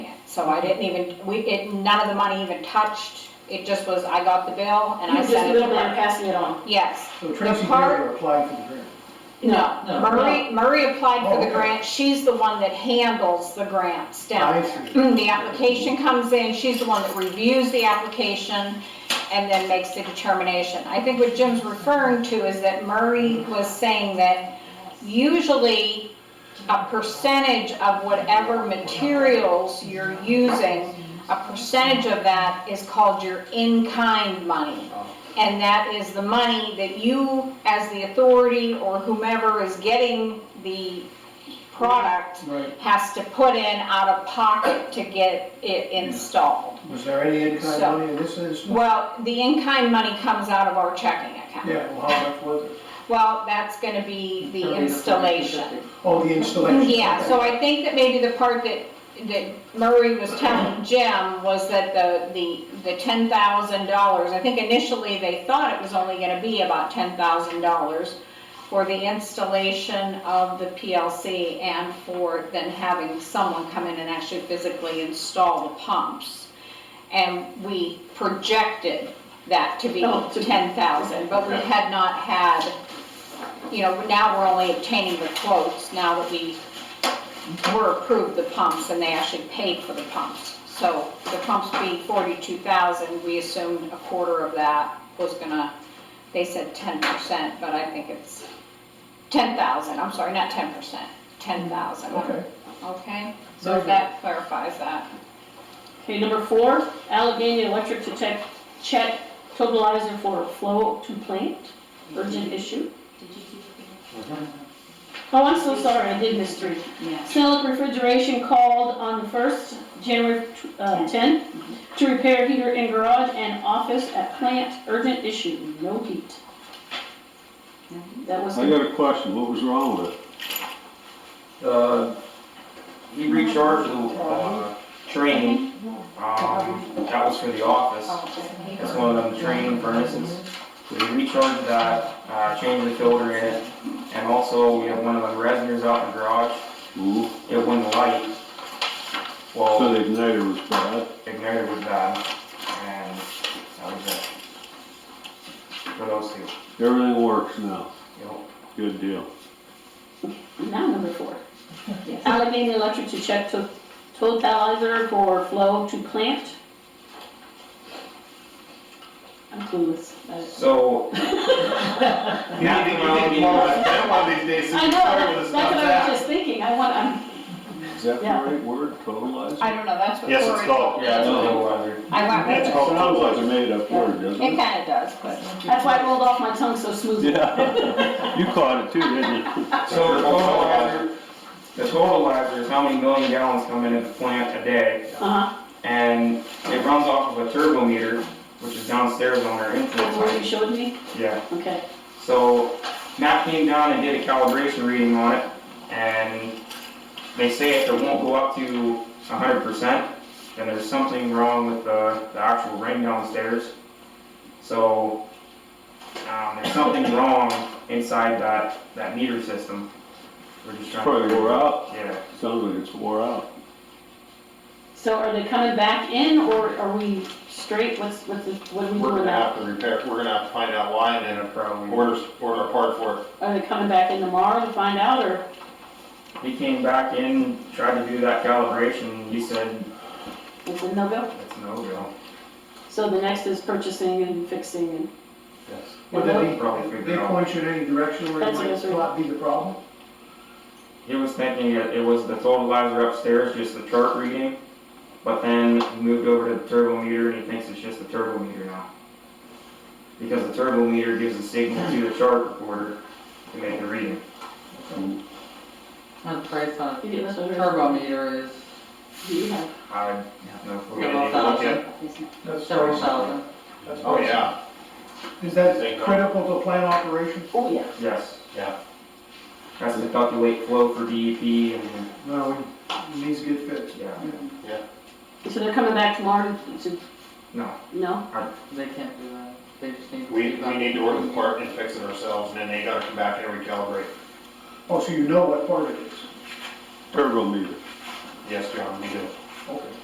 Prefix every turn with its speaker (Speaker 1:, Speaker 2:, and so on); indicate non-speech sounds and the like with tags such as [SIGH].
Speaker 1: So I didn't even, we, it, none of the money even touched, it just was, I got the bill and I
Speaker 2: You're just
Speaker 1: sent it to
Speaker 2: middleman
Speaker 1: her.
Speaker 2: passing it on.
Speaker 1: Yes.
Speaker 3: So Tracy
Speaker 1: The part-
Speaker 3: Taylor applied for the grant.
Speaker 2: No,
Speaker 4: No.
Speaker 1: Marie, Marie applied
Speaker 3: Oh,
Speaker 1: for the
Speaker 3: okay.
Speaker 1: grant, she's the one that handles the grants down
Speaker 3: I
Speaker 1: there.
Speaker 3: see.
Speaker 1: The application comes in, she's the one that reviews the application and then makes the determination. I think what Jim's referring to is that Murray was saying that usually a percentage of whatever materials you're using, a percentage of that is called your in-kind money. And that is the money that you, as the authority or whomever is getting the product,
Speaker 3: Right.
Speaker 1: has to put in out of pocket to get it installed.
Speaker 3: Was there any in-kind
Speaker 1: So-
Speaker 3: money in this instance?
Speaker 1: Well, the in-kind money comes out of our checking account.
Speaker 3: Yeah, well, how much was it?
Speaker 1: Well, that's gonna be the
Speaker 4: Thirty to
Speaker 1: installation.
Speaker 3: Oh, the installation.
Speaker 1: Yeah,
Speaker 3: okay.
Speaker 1: so I think that maybe the part that, that Murray was telling Jim was that the, the, the ten thousand dollars, I think initially they thought it was only gonna be about ten thousand dollars for the installation of the PLC and for then having someone come in and actually physically install the pumps. And we projected that to be
Speaker 2: Oh, to be-
Speaker 1: ten thousand, but we had not had, you know, now we're only obtaining the quotes now that we were approved the pumps and they actually paid for the pumps. So the pumps being forty-two thousand, we assumed a quarter of that was gonna, they said ten percent, but I think it's ten thousand, I'm sorry, not ten percent, ten thousand.
Speaker 3: Okay.
Speaker 1: Okay, so if that clarifies that.
Speaker 2: Okay, number four, Allegheny Electric to check, check totalizer for flow to plant, urgent issue. Oh, I'm so sorry, I did miss three.
Speaker 5: Yes.
Speaker 2: Snellick Refrigeration called on the first, January uh, 10, to repair heater in garage and office at plant, urgent issue, no heat. That was,
Speaker 6: I got a question, what was wrong with it?
Speaker 7: Uh, he recharged the, uh, train, um, that was for the office. That's one of them train furnaces. So he recharged that, uh, changed the filter in it, and also we have one of them resonators out in the garage,
Speaker 6: Ooh,
Speaker 7: it wouldn't light.
Speaker 6: So
Speaker 7: Well,
Speaker 6: Mm-hmm. the igniter was bad.
Speaker 7: ignited was bad, and that was it. For those two,
Speaker 6: Everything works now.
Speaker 7: you know,
Speaker 6: Good deal.
Speaker 2: now number four. Allegheny Electric to check to totalizer for flow to plant. I'm clueless. I-
Speaker 7: so.
Speaker 4: [LAUGHS] You need to, you need to call us down one of these days, so
Speaker 2: I
Speaker 4: you
Speaker 2: know,
Speaker 4: start with
Speaker 2: that's
Speaker 4: us
Speaker 2: that's what
Speaker 4: not
Speaker 2: I
Speaker 4: that.
Speaker 2: was just thinking, I want, I'm,
Speaker 6: Is that the
Speaker 2: Yeah.
Speaker 6: right word, totalizer?
Speaker 1: I don't know, that's what.
Speaker 4: Yes, it's
Speaker 1: Cory-
Speaker 4: called.
Speaker 7: Yeah, it's a little weather.
Speaker 1: I went
Speaker 4: It's
Speaker 1: with it.
Speaker 4: called-
Speaker 6: Sounds like a made-up word, doesn't
Speaker 1: It
Speaker 6: it?
Speaker 1: kinda does, but.
Speaker 2: that's why it rolled off my tongue so smoothly.
Speaker 4: [LAUGHS]
Speaker 6: Yeah. You caught it too, didn't you?
Speaker 7: So the totalizer, the totalizer is how many million gallons come into the plant a day,
Speaker 2: Uh-huh,
Speaker 7: and it runs off of a turbo meter, which is downstairs on our
Speaker 2: that's
Speaker 7: influence
Speaker 2: what you
Speaker 7: line.
Speaker 2: showed me,
Speaker 7: Yeah,
Speaker 2: okay.
Speaker 7: so Matt came down and did a calibration reading on it, and they say if it won't go up to hundred percent, then there's something wrong with the, the actual ring downstairs. So, um, there's something wrong inside that, that meter system. We're just trying to.
Speaker 6: Probably wore out.
Speaker 7: Yeah.
Speaker 6: Sounds like it's wore out.
Speaker 2: So are they coming back in, or are we straight, what's, what's, the- what are we
Speaker 4: We're
Speaker 2: doing
Speaker 4: gonna
Speaker 2: now?
Speaker 4: have to repair, we're gonna have to find out why and then
Speaker 7: Probably.
Speaker 4: order, order a part for it.
Speaker 2: Are they coming back in tomorrow to find out, or,
Speaker 7: He came back in, tried to do that calibration, he said,
Speaker 2: is it no-go?
Speaker 7: it's no go.
Speaker 2: So the next is purchasing and fixing, and,
Speaker 3: Would they,
Speaker 7: Probably
Speaker 3: be-
Speaker 7: figure
Speaker 3: they
Speaker 7: it out.
Speaker 3: point you in any direction where it
Speaker 2: That's what I
Speaker 3: might
Speaker 2: was reading.
Speaker 3: not be the problem?
Speaker 7: He was thinking that it was the totalizer upstairs, just the chart reading, but then he moved over to the turbo meter and he thinks it's just the turbo meter now. Because the turbo meter gives a signal to the chart recorder to make the reading.
Speaker 8: And the price on
Speaker 2: you get this
Speaker 8: a
Speaker 2: over?
Speaker 8: turbo meter is
Speaker 2: Do you have,
Speaker 7: I don't know if we're gonna
Speaker 8: several
Speaker 7: do
Speaker 4: okay.
Speaker 8: thousand,
Speaker 3: That's-
Speaker 8: several thousand.
Speaker 3: that's-
Speaker 4: Oh, yeah,
Speaker 3: Is
Speaker 4: They
Speaker 3: that
Speaker 4: go.
Speaker 3: critical to plant operations?
Speaker 2: oh, yeah.
Speaker 7: it. Yes.
Speaker 4: Yeah.
Speaker 7: Has to calculate flow for DEP and,
Speaker 3: No, it needs to get fixed.
Speaker 7: yeah,
Speaker 2: So they're coming back tomorrow to, to-
Speaker 7: no.
Speaker 2: no?
Speaker 8: They can't do that. They just need to.
Speaker 4: we,
Speaker 8: keep
Speaker 4: we
Speaker 8: up.
Speaker 4: need to order the part and fix it ourselves, and then they gotta come back and recalibrate.
Speaker 3: Oh, so you know what part it is?
Speaker 6: Turbo meter.
Speaker 4: Yes, John, we do.
Speaker 3: Okay.